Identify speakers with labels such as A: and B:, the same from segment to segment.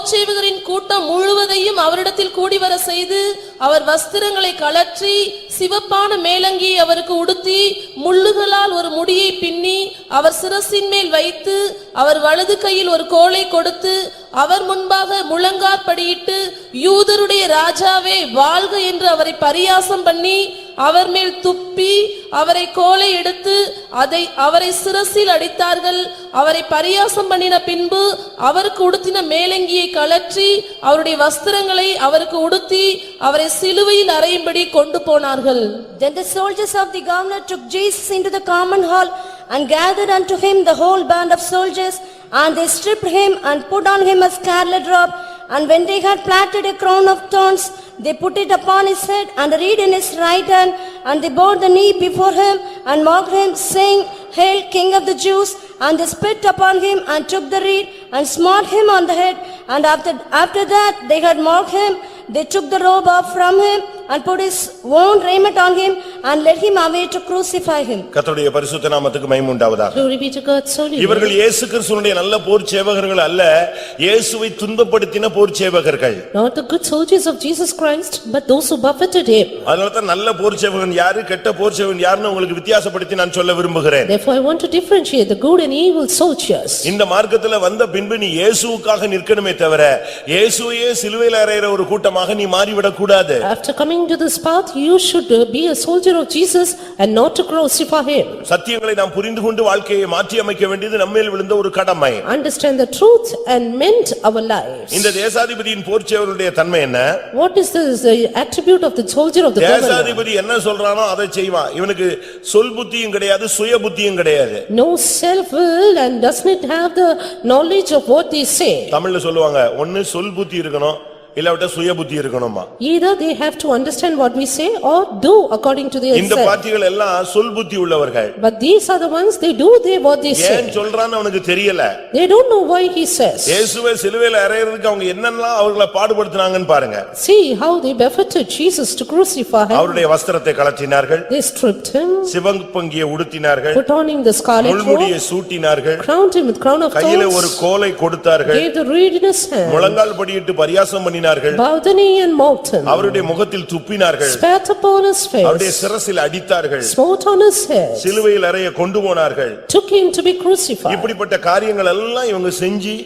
A: போச்சேவகரின் கூட்டம் முழுவதையும் அவரிடத்தில் கூடி வர செய்து அவர் வஸ்திரங்களை கழற்றி சிவப்பான மேலங்கியை அவருக்கு உடுத்தி முள்ளுகளால் ஒரு முடியை பின்னி அவர் சிரசின் மேல் வைத்து அவர் வலது கையில் ஒரு கோலை கொடுத்து அவர் முன்பாக முழங்காற்படியிட்டு யூதருடைய ராஜாவே வாழ்க என்று அவரை பரியாசம் பண்ணி அவர் மேல் துப்பி அவரை கோலை எடுத்து அதை அவரை சிரசில் அடித்தார்கள் அவரை பரியாசம் பண்ணின பின்பு அவருக்கு உடுத்தின மேலங்கியை கழற்றி அவருடைய வஸ்திரங்களை அவருக்கு உடுத்தி அவரை சிலுவையில் அறையும்படி கொண்டு போனார்கள்
B: Then the soldiers of the governor took Jesus into the common hall and gathered unto him the whole band of soldiers, and they stripped him and put on him a scarlet robe. And when they had platted a crown of thorns, they put it upon his head and a reed in his right hand, and they bowed the knee before him and mocked him, saying, Hail, King of the Jews! And they spit upon him and took the reed and smote him on the head. And after, after that, they had mocked him. They took the robe off from him and put his own raiment on him and led him away to crucify him.
C: கர்த்தருடைய பரிசுத்த நாமத்துக்கு மகிமை உண்டாவதாக
D: Glory be to God's holy name.
C: இவர்கள் இயேசு கிறிஸ்துவனுடைய நல்ல போர் சேவகர்கள் அல்ல இயேசுவை துன்பப்படுத்தின போர் சேவகர்கள்
D: Not the good soldiers of Jesus Christ, but those who buffeted him.
C: அதனால தான் நல்ல போர் சேவகன் யாரு கெட்ட போர் சேவகன் யாருன்னு உங்களுக்கு வித்தியாசப்படுத்தி நான் சொல்ல விரும்புகிறேன்
D: Therefore, I want to differentiate the good and evil soldiers.
C: இந்த மார்க்கத்துல வந்த பின்பு நீ இயேசுவுக்காக நிற்கணுமே தவிர இயேசுவையே சிலுவையில் அறையிற ஒரு கூட்டமாக நீ மாறிவிடக் கூடாது
D: After coming to this path, you should uh, be a soldier of Jesus and not to crucify him.
C: சத்தியங்களை நாம் புரிந்து கொண்டு வாழ்க்கையை மாற்றி அமைக்க வேண்டியது நம்மேல் விழுந்த ஒரு கடமை
D: Understand the truth and mend our lives.
C: இந்த தேசாதிபதியின் போர் சேவகனுடைய தன்மை என்ன
D: What is this uh, attribute of the soldier of the governor?
C: தேசாதிபதி என்ன சொல்றானோ அதை செய்வான் இவனுக்கு சொல் புத்தியும் கிடையாது சுய புத்தியும் கிடையாது
D: No self-will and does not have the knowledge of what they say.
C: தமிழ்ல சொல்லுவாங்க ஒன்னு சொல் புத்தி இருக்கணும் இல்லாவிட்டா சுய புத்தி இருக்கணுமா
D: Either they have to understand what we say or do according to their
C: இந்த
D: self.
C: பார்ட்டிகள் எல்லாம் சொல் புத்தி உள்ளவர்கள்
D: But these are the ones, they do they what they
C: ஏன்
D: say.
C: சொல்றான்னு அவனுக்கு தெரியல
D: They don't know why he says.
C: இயேசுவை சிலுவையில அறையிறதுக்கு அவங்க என்னெல்லாம் அவர்களை பாடுபடுத்துனாங்கன்னு பாருங்க
D: See how they buffeted Jesus to crucify him.
C: அவருடைய வஸ்திரத்தை கலற்றினார்கள்
D: They stripped him,
C: சிவப்பங்கியை உடுத்தினார்கள்
D: put on him the scarlet
C: முள்முடியை
D: robe,
C: சூட்டினார்கள்
D: crowned him with crown of
C: கையில ஒரு
D: thorns,
C: கோலை கொடுத்தார்கள்
D: gave the reed in his hand,
C: முழங்கால் படியிட்டு பரியாசம் பண்ணினார்கள்
D: bowed the knee and mocked him,
C: அவருடைய முகத்தில் துப்பினார்கள்
D: spat upon his
C: அவருடைய
D: face,
C: சிரசில் அடித்தார்கள்
D: smote on his head,
C: சிலுவையில் அறைய கொண்டு போனார்கள்
D: took him to be crucified.
C: இப்படிப்பட்ட காரியங்கள் எல்லாம் இவங்க செஞ்சு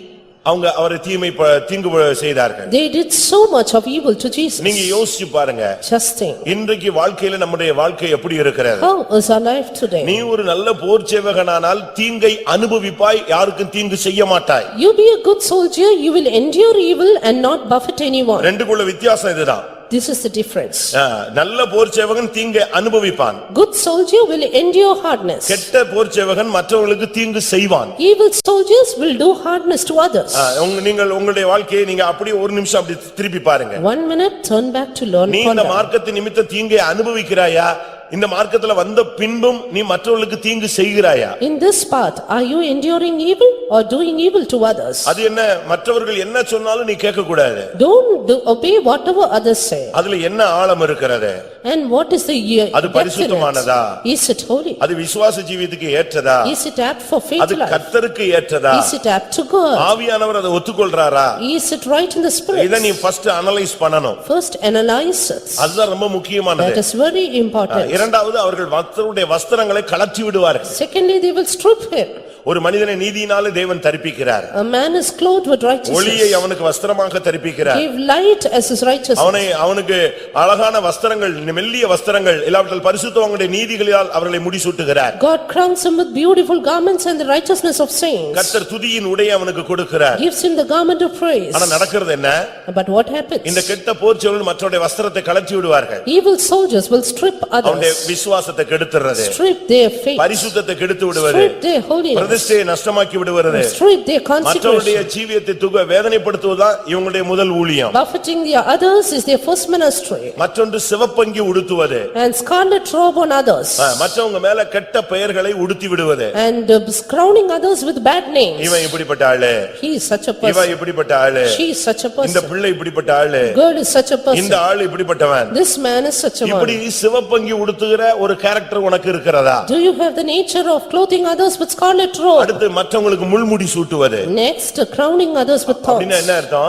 C: அவங்க அவரை தீமை ப- தீங்கு ப- செய்தார்கள்
D: They did so much of evil to
C: நீங்க
D: Jesus.
C: யோசிச்சு பாருங்க
D: Just think,
C: இன்றைக்கு வாழ்க்கையில நம்முடைய வாழ்க்கை எப்படி இருக்கிறது
D: how is our life
C: நீ
D: today?
C: ஒரு நல்ல போர் சேவகனானால் தீங்கை அனுபவிப்பாய் யாருக்கும் தீங்கு செய்ய மாட்டாய்
D: You be a good soldier, you will endure evil and not buffet anyone.
C: ரெண்டுக்குள்ள வித்தியாசம் இதுதான்
D: This is the difference.
C: ஆ, நல்ல போர் சேவகன் தீங்கை அனுபவிப்பான்
D: Good soldier will endure hardness.
C: கெட்ட போர் சேவகன் மற்றவர்களுக்கு தீங்கு செய்வான்
D: Evil soldiers will do hardness to others.
C: ஆ, உங்க- நீங்கள் உங்களுடைய வாழ்க்கையை நீங்க அப்படியே ஒரு நிமிஷம் அப்படி திருப்பி பாருங்க
D: One minute, turn back to learn
C: நீ இந்த
D: conduct.
C: மார்க்கத்து நிமித்த தீங்கை அனுபவிக்கிறாயா? இந்த மார்க்கத்துல வந்த பின்பும் நீ மற்றவர்களுக்கு தீங்கு செய்கிறாயா?
D: In this path, are you enduring evil or doing evil to others?
C: அது என்ன மற்றவர்கள் என்ன சொன்னாலும் நீ கேட்கக்கூடாது.
D: Don't do- obey whatever others say.
C: அதுல என்ன ஆழம் இருக்கிறது?
D: And what is the year?
C: அது பரிசுத்தமானதா?
D: Is it holy?
C: அது விசுவாச ஜீவியத்துக்கு ஏற்றதா?
D: Is it apt for faith
C: அது
D: life?
C: கர்த்தருக்கு ஏற்றதா?
D: Is it apt to God?
C: ஆவியானவர் அதை ஒத்துக்கொள்றாரா?
D: Is it right in the
C: இதை நீ
D: spirit?
C: ஃபர்ஸ்ட் அனலைஸ் பண்ணணும்.
D: First analyze it.
C: அதுதான் ரொம்ப
D: That
C: முக்கியமானது.
D: is very important.
C: இரண்டாவது அவர்கள் மற்றவருடைய வஸ்திரங்களை கலற்றி விடுவார்கள்.
D: Secondly, they will strip him.
C: ஒரு மனிதனை நீதியினாலே தேவன் தரிப்பிக்கிறார்.
D: A man is clothed with
C: ஒளியை
D: righteousness.
C: அவனுக்கு வஸ்திரமாக தரிப்பிக்கிறார்.
D: Give light as his righteousness.
C: அவனை அவனுக்கு அழகான வஸ்திரங்கள் மெல்லிய வஸ்திரங்கள் இல்லாவிட்டால் பரிசுத்தவங்களுடைய நீதிகளினால் அவர்களை முடிசூட்டுகிறார்
D: God crowns him with beautiful garments and the righteousness of saints.
C: கர்த்தர் துதியின் உடைய அவனுக்கு கொடுக்கிறார்
D: Gives him the garment of praise.
C: ஆனா நடக்கிறது என்ன
D: But what
C: இந்த
D: happens?
C: கெட்ட போர்ச்சவர்கள் மற்றவருடைய வஸ்திரத்தை கலற்றி விடுவார்கள்
D: Evil soldiers will strip
C: அவனுடைய
D: others,
C: விசுவாசத்தை கெடுத்துறது
D: strip their faith,
C: பரிசுத்தத்தை கெடுத்து விடுவது
D: strip their holiness,
C: பிரதிஷ்டையை நஷ்டமாக்கி விடுவது
D: strip their
C: மற்றவருடைய
D: consecration.
C: ஜீவியத்தை துக வேதனைப்படுத்துவதுதான் இவங்களுடைய முதல் ஊழியம்
D: Buffeting the others is their first ministry
C: மற்றொன்று சிவப்பங்கி உடுத்துவது
D: and scarlet robe on others
C: அஹ், மற்றவங்க மேல கெட்ட பெயர்களை உடுத்தி விடுவது
D: and uh, crowning others with bad names.
C: இவன் இப்படிப்பட்ட ஆளு
D: He is such a
C: இவன்
D: person,
C: இப்படிப்பட்ட ஆளு
D: she is such a
C: இந்த
D: person,
C: பிள்ளை இப்படிப்பட்ட ஆளு
D: girl is such a person,
C: இந்த ஆள் இப்படிப்பட்டவன்
D: this man is such a one.
C: இப்படி சிவப்பங்கி உடுத்துகிற ஒரு கேரக்டர் உனக்கு இருக்கிறதா
D: Do you have the nature of clothing others with scarlet
C: robe.
D: அடுத்து மற்றவங்களுக்கு முள்முடி சூட்டுவது
C: Next, crowning others with thorns.
D: அப்படின்னா என்ன அர்த்தம்